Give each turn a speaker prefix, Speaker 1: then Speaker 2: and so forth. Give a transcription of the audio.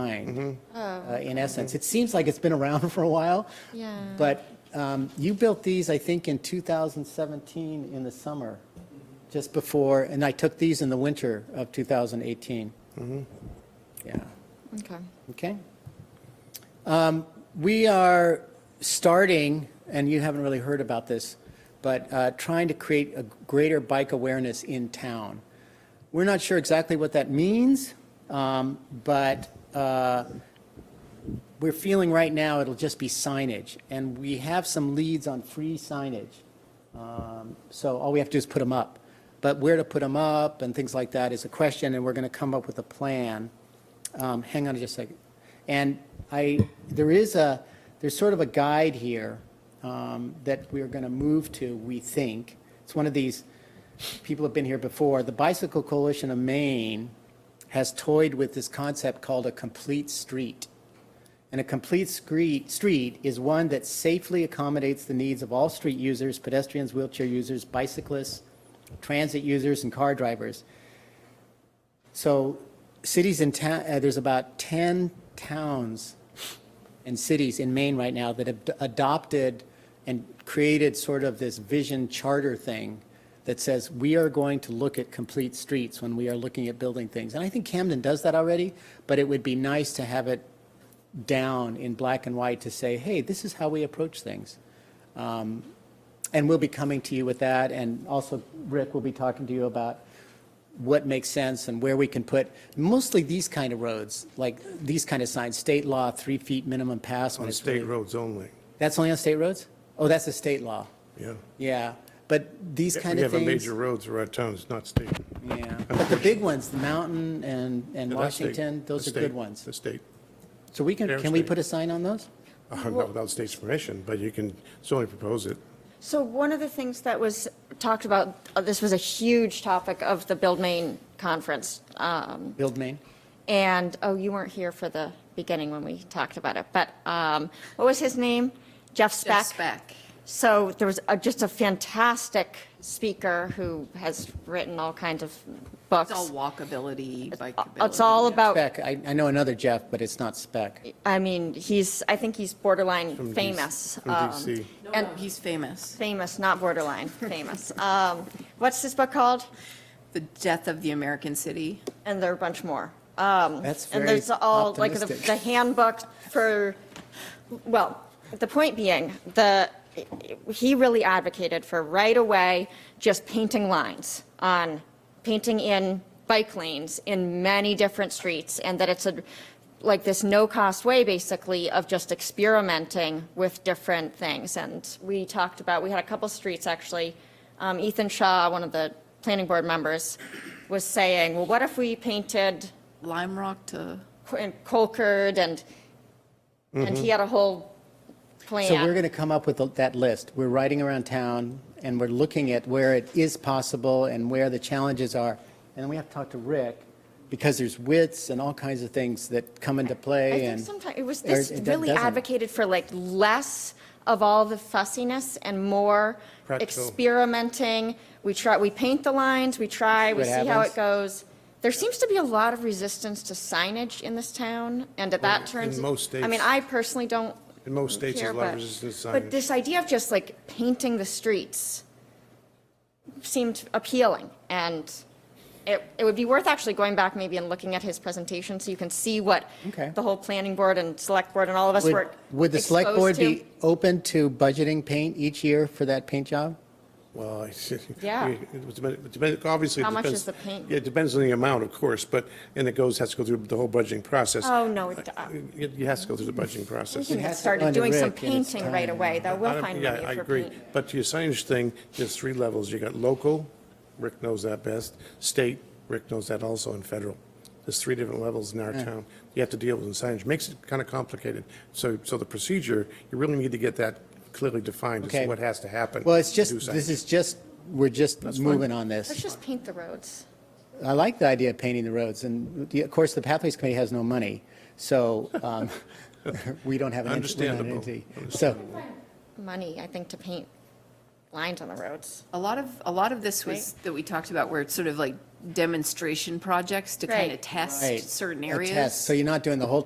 Speaker 1: behind, uh, in essence. It seems like it's been around for a while.
Speaker 2: Yeah.
Speaker 1: But um, you built these, I think, in 2017 in the summer, just before, and I took these in the winter of 2018. Yeah,
Speaker 2: Okay.
Speaker 1: okay. Um, We are starting, and you haven't really heard about this, but uh, trying to create a greater bike awareness in town. We're not sure exactly what that means, um, but uh, we're feeling right now it'll just be signage, and we have some leads on free signage. Um, So all we have to do is put them up. But where to put them up and things like that is a question, and we're going to come up with a plan. Um, Hang on just a second. And I, there is a, there's sort of a guide here um, that we are going to move to, we think. It's one of these, people have been here before. The Bicycle Coalition of Maine has toyed with this concept called a complete street. And a complete street, street is one that safely accommodates the needs of all street users, pedestrians, wheelchair users, bicyclists, transit users, and car drivers. So cities and town, uh, there's about 10 towns and cities in Maine right now that have adopted and created sort of this vision charter thing that says, we are going to look at complete streets when we are looking at building things. And I think Camden does that already, but it would be nice to have it down in black and white to say, hey, this is how we approach things. Um, And we'll be coming to you with that, and also Rick will be talking to you about what makes sense and where we can put mostly these kind of roads, like these kind of signs, state law, three feet minimum pass. when
Speaker 3: On
Speaker 1: it's
Speaker 3: state
Speaker 1: really-
Speaker 3: roads only,
Speaker 1: That's only on state roads? Oh, that's a state law,
Speaker 3: yeah.
Speaker 1: yeah. But these
Speaker 3: If
Speaker 1: kind of
Speaker 3: We have a
Speaker 1: things,
Speaker 3: major roads around town, it's not state.
Speaker 1: yeah. But the big ones, the mountain and, and
Speaker 3: Yeah, that's state.
Speaker 1: Washington, those
Speaker 3: The
Speaker 1: are good
Speaker 3: state-
Speaker 1: ones.
Speaker 3: The state,
Speaker 1: So we can,
Speaker 3: they're
Speaker 1: can we
Speaker 3: state.
Speaker 1: put a sign on those?
Speaker 3: Uh, not without state's permission, but you can, it's only propose it.
Speaker 2: So one of the things that was talked about, uh, this was a huge topic of the Build Maine conference. um,
Speaker 1: Build Maine?
Speaker 2: And, oh, you weren't here for the beginning when we talked about it, but um, what was his name? Jeff Speck?
Speaker 4: Jeff Speck.
Speaker 2: So there was a- just a fantastic speaker who has written all kinds of books.
Speaker 4: It's all walkability, bikeability.
Speaker 2: It's all
Speaker 4: yeah.
Speaker 2: about,
Speaker 1: Spec, I, I know another Jeff, but it's not spec.
Speaker 2: I mean, he's, I think he's
Speaker 3: from
Speaker 2: borderline
Speaker 3: DC
Speaker 2: famous.
Speaker 3: From
Speaker 2: um,
Speaker 3: DC.
Speaker 4: No,
Speaker 2: and-
Speaker 4: no, he's famous.
Speaker 2: Famous, not borderline, famous. Um, What's this book called?
Speaker 4: The death of the American city.
Speaker 2: And there are a bunch more. Um,
Speaker 1: That's
Speaker 2: And
Speaker 1: very
Speaker 2: there's all, like, the
Speaker 1: optimistic.
Speaker 2: the handbook for, well, the point being, the, he really advocated for right away, just painting lines on, painting in bike lanes in many different streets, and that it's a, like, this no-cost way, basically, of just experimenting with different things. And we talked about, we had a couple streets, actually, um, Ethan Shaw, one of the planning board members, was saying, well, what if we painted
Speaker 4: Lime Rock to,
Speaker 2: Co- and Colcord and, and
Speaker 3: Mm-hmm.
Speaker 2: he had a whole plan.
Speaker 1: So we're going to come up with that list. We're riding around town and we're looking at where it is possible and where the challenges are. And we have to talk to Rick because there's widths and all kinds of things that come into
Speaker 2: I
Speaker 1: play
Speaker 2: think
Speaker 1: and.
Speaker 2: sometimes, it was
Speaker 1: or
Speaker 2: this
Speaker 1: it do-
Speaker 2: really
Speaker 1: doesn't.
Speaker 2: advocated for like less of all the fussiness and more
Speaker 3: Practical.
Speaker 2: experimenting. We try, we paint the lines, we try, we
Speaker 1: what
Speaker 2: see how
Speaker 1: happens.
Speaker 2: it goes. There seems to be a lot of resistance to signage in this town and that that turns.
Speaker 3: in most
Speaker 2: I mean,
Speaker 3: states.
Speaker 2: I personally don't
Speaker 3: In most states,
Speaker 2: care,
Speaker 3: there's a lot
Speaker 2: but-
Speaker 3: of resistance to
Speaker 2: But
Speaker 3: signage.
Speaker 2: this idea of just like painting the streets seemed appealing, and it, it would be worth actually going back maybe and looking at his presentation, so you can see what
Speaker 1: Okay.
Speaker 2: the whole planning board and select board and all of us
Speaker 1: Would,
Speaker 2: were
Speaker 1: would the select
Speaker 2: exposed
Speaker 1: board be
Speaker 2: to.
Speaker 1: open to budgeting paint each year for that paint job?
Speaker 3: Well, I see.
Speaker 2: Yeah.
Speaker 3: It was depend- it depend- obviously. it
Speaker 2: How much
Speaker 3: depends-
Speaker 2: is the paint?
Speaker 3: Yeah, It depends on the amount, of course, but, and it goes, has to go through the whole budgeting process.
Speaker 2: Oh, no, it-
Speaker 3: It it has to go through the budgeting process.
Speaker 2: We
Speaker 1: has to
Speaker 2: had
Speaker 1: go
Speaker 2: started
Speaker 1: under
Speaker 2: doing some
Speaker 1: Rick and it's
Speaker 2: painting right
Speaker 1: time.
Speaker 2: away, though,
Speaker 3: I
Speaker 2: we'll
Speaker 3: don't-
Speaker 2: find
Speaker 3: yeah,
Speaker 2: money
Speaker 3: I
Speaker 2: for
Speaker 3: agree.
Speaker 2: paint.
Speaker 3: But to your signage thing, there's three levels. You got local, Rick knows that best, state, Rick knows that also, and federal. There's three different levels in our town. You have to deal with in signage. Makes it kind of complicated. So, so the procedure, you really need to get that clearly defined as
Speaker 1: Okay.
Speaker 3: to what has to happen.
Speaker 1: Well, it's
Speaker 3: to
Speaker 1: just,
Speaker 3: do
Speaker 1: this
Speaker 3: signage.
Speaker 1: is just, we're just moving on
Speaker 2: Let's
Speaker 1: this.
Speaker 2: just paint the roads.
Speaker 1: I like the idea of painting the roads, and the- of course, the Pathways Committee has no money, so um, we don't have an ent- we're not an
Speaker 3: Understandable.
Speaker 1: entity. So,
Speaker 2: Money, I think, to paint lines on the roads.
Speaker 4: A lot of, a lot of this was, that we talked about, where it's sort of like demonstration projects to kind
Speaker 2: Right.
Speaker 4: of test
Speaker 1: Right.
Speaker 4: certain
Speaker 1: A
Speaker 4: areas.
Speaker 1: test. So you're not doing the whole